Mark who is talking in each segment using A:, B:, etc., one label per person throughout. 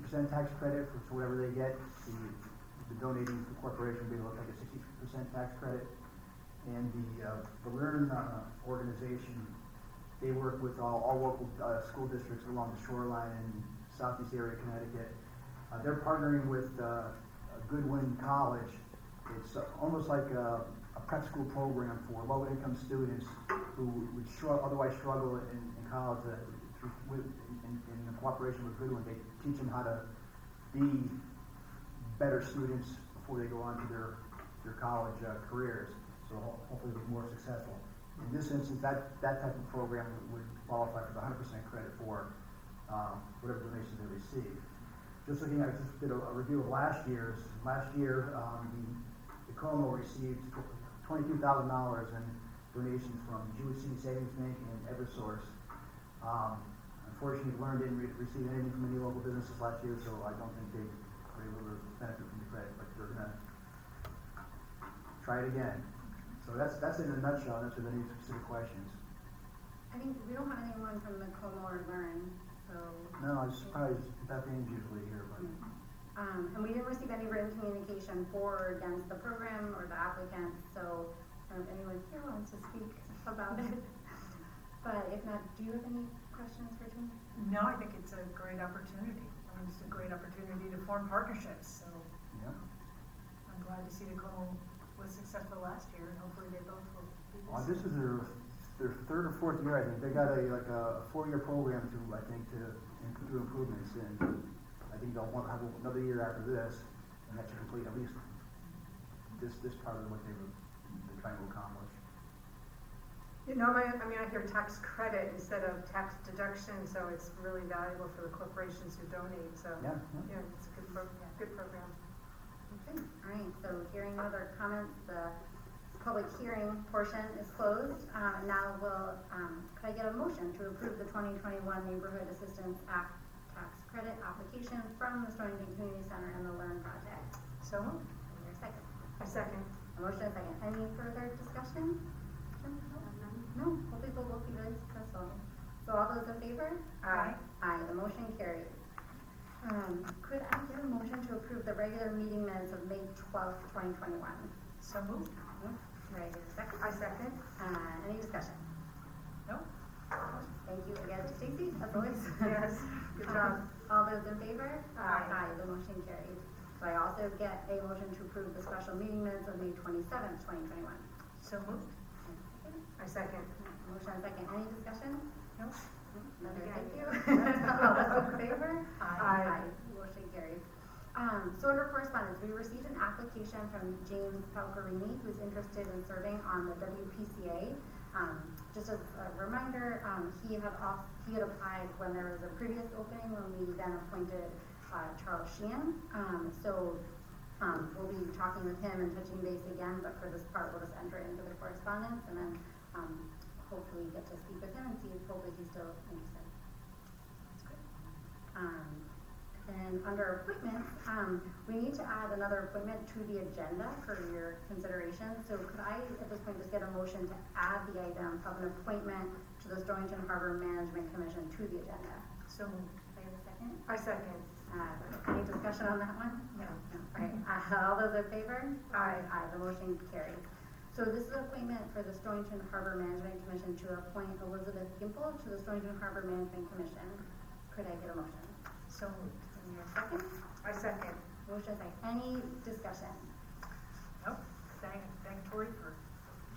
A: percent tax credit for to whatever they get. The, the donating to the corporation would be like a sixty percent tax credit. And the, uh, the Learn uh, organization, they work with all, all local, uh, school districts along the shoreline in southeast area of Connecticut. Uh, they're partnering with, uh, Goodwin College. It's uh, almost like a, a prep school program for low-income students who would struggle, otherwise struggle in, in college, uh, through, with, in, in in cooperation with Goodwin, they teach them how to be better students before they go on to their, their college uh, careers. So ho- hopefully they'll be more successful. In this instance, that, that type of program would qualify for the hundred percent credit for, um, whatever donations they receive. Just looking at, I just did a, a review of last year's, last year, um, the, the Como received twenty-two thousand dollars in donations from Jewett City Savings Bank and Eversource. Um, unfortunately, Learn didn't re- receive anything from any local businesses last year, so I don't think they were able to benefit from the credit, but they're gonna try it again. So that's, that's in a nutshell, unless there's any specific questions.
B: I think we don't have anyone from the Como or Learn, so. Hmm.
A: No, I was surprised, Beth Ann's usually here, but,
B: Um, and we didn't receive any written communication for or against the program or the applicant, so, um, if anyone here wants to speak about it. But if not, do you have any questions for Tim?
C: No, I think it's a great opportunity. I mean, it's a great opportunity to form partnerships, so
A: yeah.
C: I'm glad to see the Como was successful last year, and hopefully they both will be this.
A: Well, this is their, their third or fourth year, I think. They got a, like a four-year program to, I think, to, im- do improvements, and I think they'll want, have another year after this, and that should complete at least this, this part of what they were, they're trying to accomplish.
D: You know, I, I mean, I hear tax credit instead of tax deduction, so it's really valuable for the corporations who donate, so.
A: Yeah, yeah.
D: Yeah, it's a good pro, good program.
B: Okay, all right, so hearing no other comments, the public hearing portion is closed. Uh, now will, um, could I get a motion to approve the twenty twenty-one Neighborhood Assistance Act tax credit application from the Stonington Community Center and the Learn Project?
C: So moved.
B: Is there a second?
D: A second.
B: A motion, a second. Any further discussion? No, hopefully we'll both be really successful. So all those in favor?
D: Aye.
B: Aye, the motion carries. Um, could I get a motion to approve the regular meeting minutes of May twelfth, twenty twenty-one?
C: So moved.
B: Right, is there a second?
D: Mm-hmm. I second.
B: Uh, any discussion?
C: No?
B: Thank you again to Stacy, as always.
D: Yes, good job.
B: All those in favor?
D: Aye.
B: Aye, the motion carries. So I also get a motion to approve the special meeting minutes of May twenty-seventh, twenty twenty-one.
C: So moved.
D: I second.
B: Motion and second, any discussion?
C: No?
B: Another
D: Okay.
B: thank you. All those in favor?
D: Aye.
B: Motion carries. Um, so under correspondence, we received an application from James Falcarini, who's interested in serving on the WPCA. Um, just as a reminder, um, he had off, he had applied when there was a previous opening, when we then appointed, uh, Charles Sheehan. Um, so, um, we'll be talking with him and touching base again, but for this part, we'll just enter into the correspondence and then, um, hopefully get to speak with him and see if hopefully he's still interested.
C: That's good.
B: Um, then under appointments, um, we need to add another appointment to the agenda for your consideration. So could I, at this point, just get a motion to add the item of an appointment to the Stonington Harbor Management Commission to the agenda?
C: So moved.
B: Do I have a second?
D: I second.
B: Uh, any discussion on that one?
C: No.
B: No. All right, uh, all those in favor?
D: Aye.
B: Aye, the motion carries. So this is an appointment for the Stonington Harbor Management Commission to appoint Elizabeth Gimple to the Stonington Harbor Management Commission. Could I get a motion?
C: So moved.
B: Is there a second?
D: I second.
B: Motion second. Any discussion?
C: No? Thank, thank Tori for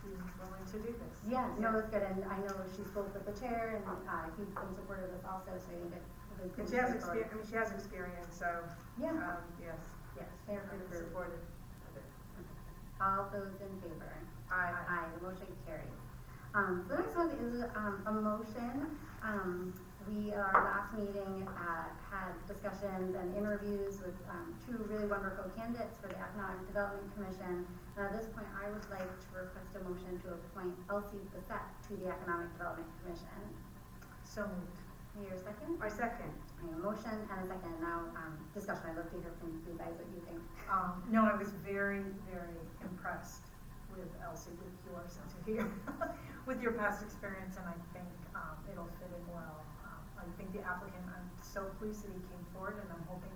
C: being willing to do this.
B: Yeah, no, that's good, and I know she spoke with the chair, and, uh, he's been supportive of us also, so you get. the good
D: And she has
B: support.
D: exper, I mean, she has experience, so, um,
B: Yeah,
D: yes.
B: yes, they're
D: I'm
B: good group.
D: supportive of it.
B: All those in favor?
D: Aye.
B: Aye, the motion carries. Um, the next one is, um, a motion, um, we, our last meeting, uh, had discussions and interviews with, um, two really wonderful candidates for the Economic Development Commission. And at this point, I would like to request a motion to appoint Elsie Bissette to the Economic Development Commission.
C: So moved.
B: Your second?
D: I second.
B: I have a motion and a second, now, um, discussion, I'd love to hear from you guys what you think.
C: Um, no, I was very, very impressed with Elsie, with your sense of humor, with your past experience, and I think, um, it'll fit in well. Um, I think the applicant, I'm so pleased that he came forward, and I'm hoping